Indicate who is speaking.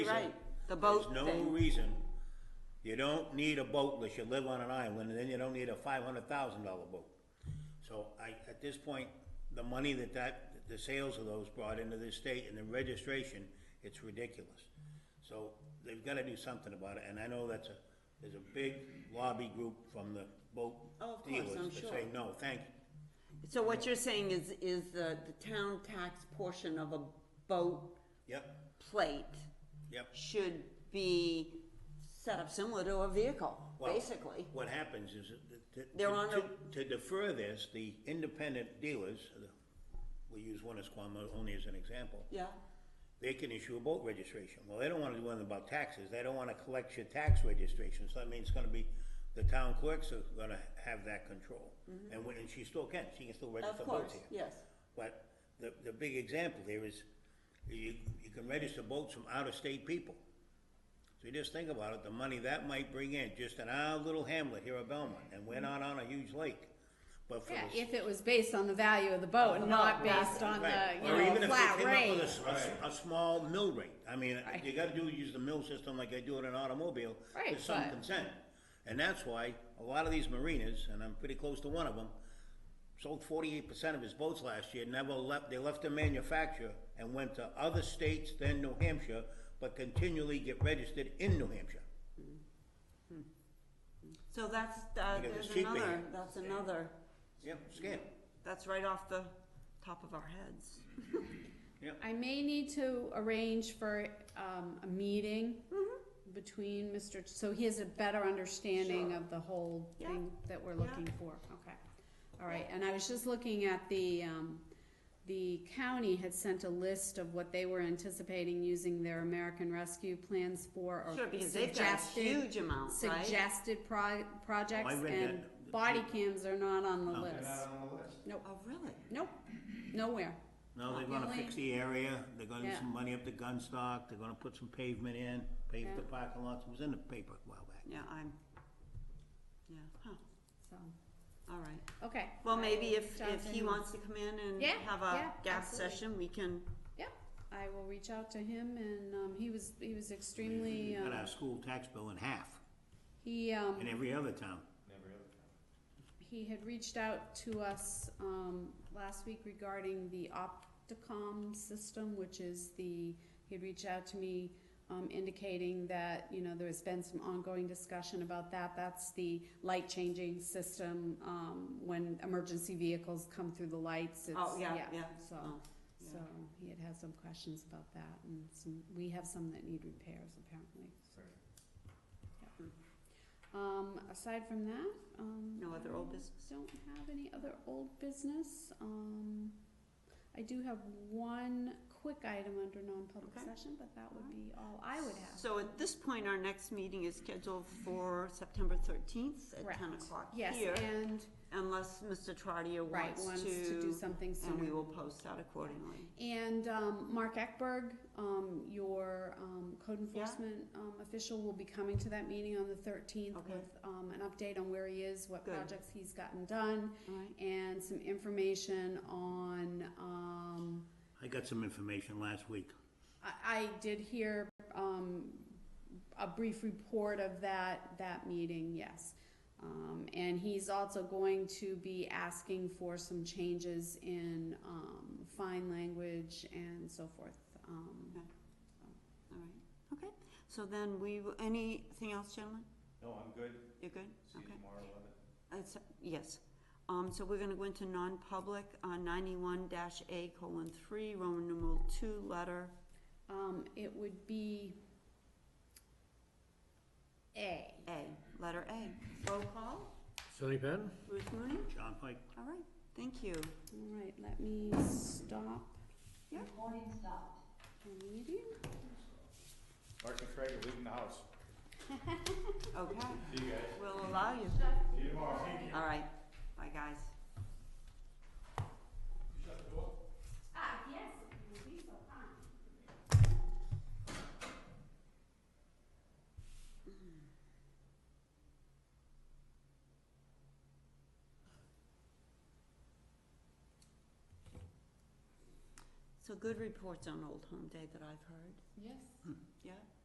Speaker 1: Right, the boat
Speaker 2: There's no
Speaker 1: thing.
Speaker 2: reason, you don't need a boat unless you live on an island, and then you don't need a five hundred thousand dollar boat. So I, at this point, the money that that, the sales of those brought into this state and the registration, it's ridiculous. So they've gotta do something about it, and I know that's a, there's a big lobby group from the boat
Speaker 1: Oh, of course, I'm
Speaker 2: dealers that say,
Speaker 1: sure.
Speaker 2: no, thank you.
Speaker 1: So what you're saying is, is the, the town tax portion of a boat
Speaker 2: Yep,
Speaker 1: plate
Speaker 2: yep.
Speaker 1: should be set up similar to a vehicle,
Speaker 2: Well,
Speaker 1: basically.
Speaker 2: What happens is that- that.
Speaker 1: They're on
Speaker 2: to- To defer this, the independent dealers, uh, we use one as Quamo only as an example,
Speaker 1: Yeah,
Speaker 2: they can issue a boat registration. Well, they don't wanna do anything about taxes, they don't wanna collect your tax registration, so that means it's gonna be, the town clerks are gonna have that control. And when, and she still can, she can still
Speaker 1: Mm-hmm. of
Speaker 2: register boats
Speaker 1: course,
Speaker 2: here.
Speaker 1: yes.
Speaker 2: But the, the big example here is, you, you can register boats from out-of-state people. So you just think about it, the money that might bring in, just in our little hamlet here at Belmont, and we're not on a huge lake. But for
Speaker 3: Mm-hmm. Yeah,
Speaker 2: the.
Speaker 3: if it was based on the value of the boat and not based on
Speaker 2: Right.
Speaker 3: the, you
Speaker 2: Or even
Speaker 3: know,
Speaker 2: if they
Speaker 3: flat
Speaker 2: came up with a
Speaker 3: rate.
Speaker 2: s- a s- A small mill rate, I mean, you gotta do, use the mill system like I do in an automobile,
Speaker 3: Right,
Speaker 2: there's some
Speaker 3: but-
Speaker 2: consent. And that's why a lot of these marinas, and I'm pretty close to one of them, sold forty-eight percent of his boats last year, never left, they left the manufacturer and went to other states, then New Hampshire, but continually get registered in New Hampshire.
Speaker 1: So that's, uh,
Speaker 2: Because it's
Speaker 1: there's
Speaker 2: cheaper
Speaker 1: another,
Speaker 2: here.
Speaker 1: that's another,
Speaker 2: Yep, scam,
Speaker 1: that's right off the top of our heads.
Speaker 3: I may need to arrange for, um, a meeting between Mr., Ch- so he has a better understanding
Speaker 1: Mm-hmm. Sure.
Speaker 3: of the whole
Speaker 1: Yeah.
Speaker 3: thing that we're
Speaker 1: Yeah.
Speaker 3: looking for, okay. All right, and I was just looking at the, um, the county had sent a list of what they were anticipating using their American Rescue plans for or
Speaker 1: Sure, because they've got a
Speaker 3: suggested,
Speaker 1: huge amount, right?
Speaker 3: suggested pro- projects
Speaker 2: Oh, read
Speaker 3: and
Speaker 2: that.
Speaker 3: body cams are not on the
Speaker 2: No.
Speaker 3: list. Nope,
Speaker 1: Oh, really?
Speaker 3: nope, nowhere.
Speaker 2: now they're
Speaker 3: Not
Speaker 2: gonna
Speaker 3: really.
Speaker 2: fix the area, they're gonna do
Speaker 3: Yeah.
Speaker 2: some money up the gun stock, they're gonna put some pavement in, pave the
Speaker 3: Yeah.
Speaker 2: parking lots, it was in the paper a while back.
Speaker 1: Yeah, I'm, yeah, huh,
Speaker 3: So,
Speaker 1: all right.
Speaker 3: okay.
Speaker 1: Well,
Speaker 3: I
Speaker 1: maybe
Speaker 3: will-
Speaker 1: if, if he
Speaker 3: Jonathan-
Speaker 1: wants to come in and
Speaker 3: Yeah,
Speaker 1: have a
Speaker 3: yeah,
Speaker 1: gap
Speaker 3: absolutely.
Speaker 1: session, we can,
Speaker 3: Yeah, I will reach out to him and, um, he was, he was extremely,
Speaker 2: Cut
Speaker 3: uh,
Speaker 2: our school tax bill in half,
Speaker 3: he,
Speaker 2: in
Speaker 3: um,
Speaker 2: every other town.
Speaker 3: he had reached out to us, um, last week regarding the Opticom system, which is the, he had reached out to me, um, indicating that, you know, there's been some ongoing discussion about that. That's the light changing system, um, when emergency vehicles come through the lights. It's-
Speaker 1: oh, yeah, yeah.
Speaker 3: So.
Speaker 1: Oh,
Speaker 3: So he had had some questions about that and some, we have some that need repairs apparently. so. Yep. Um, aside from that, um.
Speaker 1: No other old
Speaker 3: I
Speaker 1: business?
Speaker 3: Don't have any other old business. Um, I do have one quick item under non-public
Speaker 1: Okay.
Speaker 3: session, but that would be all I would have.
Speaker 1: So at this point, our next meeting is scheduled for September thirteenth at ten
Speaker 3: Correct.
Speaker 1: o'clock
Speaker 3: Yes,
Speaker 1: here,
Speaker 3: and,
Speaker 1: unless Mr. Trotter
Speaker 3: right,
Speaker 1: wants to.
Speaker 3: wants to do something sooner.
Speaker 1: And we will post that accordingly.
Speaker 3: And um, Mark Eckberg, um, your um, code
Speaker 1: Yeah.
Speaker 3: enforcement um, official, will be coming to that meeting on the 13th
Speaker 1: Okay.
Speaker 3: with um, an update on where he is, what
Speaker 1: Good.
Speaker 3: projects he's gotten done,
Speaker 1: All right,
Speaker 3: and some information on. Um,
Speaker 2: I got some information last week.
Speaker 3: I, I did hear um, a brief report of that that meeting. Yes. Um, and he's also going to be asking for some changes in um, fine language and so forth. Um,
Speaker 1: all right, okay. So then we, will- anything else, gentlemen?
Speaker 4: No, I'm good.
Speaker 1: You're good?
Speaker 4: See you
Speaker 1: Okay.
Speaker 4: tomorrow, eleven.
Speaker 1: It's, yes. Um, so we're gonna go into non-public, uh, ninety-one dash A colon three, Roman numeral two, letter
Speaker 3: Um, it would be A.
Speaker 1: A, letter A. Roll call,
Speaker 5: Sunny Patton?
Speaker 1: Ruth Mooney,
Speaker 2: John Pike,
Speaker 1: all right, thank you.
Speaker 3: All right, let me stop
Speaker 1: Yep.
Speaker 3: the meeting.
Speaker 4: Mark and Craig are leaving the house.
Speaker 1: Okay,
Speaker 4: See you guys.
Speaker 1: we'll allow you.
Speaker 4: See you tomorrow. Thank
Speaker 1: All right, bye, guys.
Speaker 3: Ah, yes, it would be so fine.
Speaker 1: So So good reports on Old Home Day that I've heard,
Speaker 3: Yes.
Speaker 1: yeah?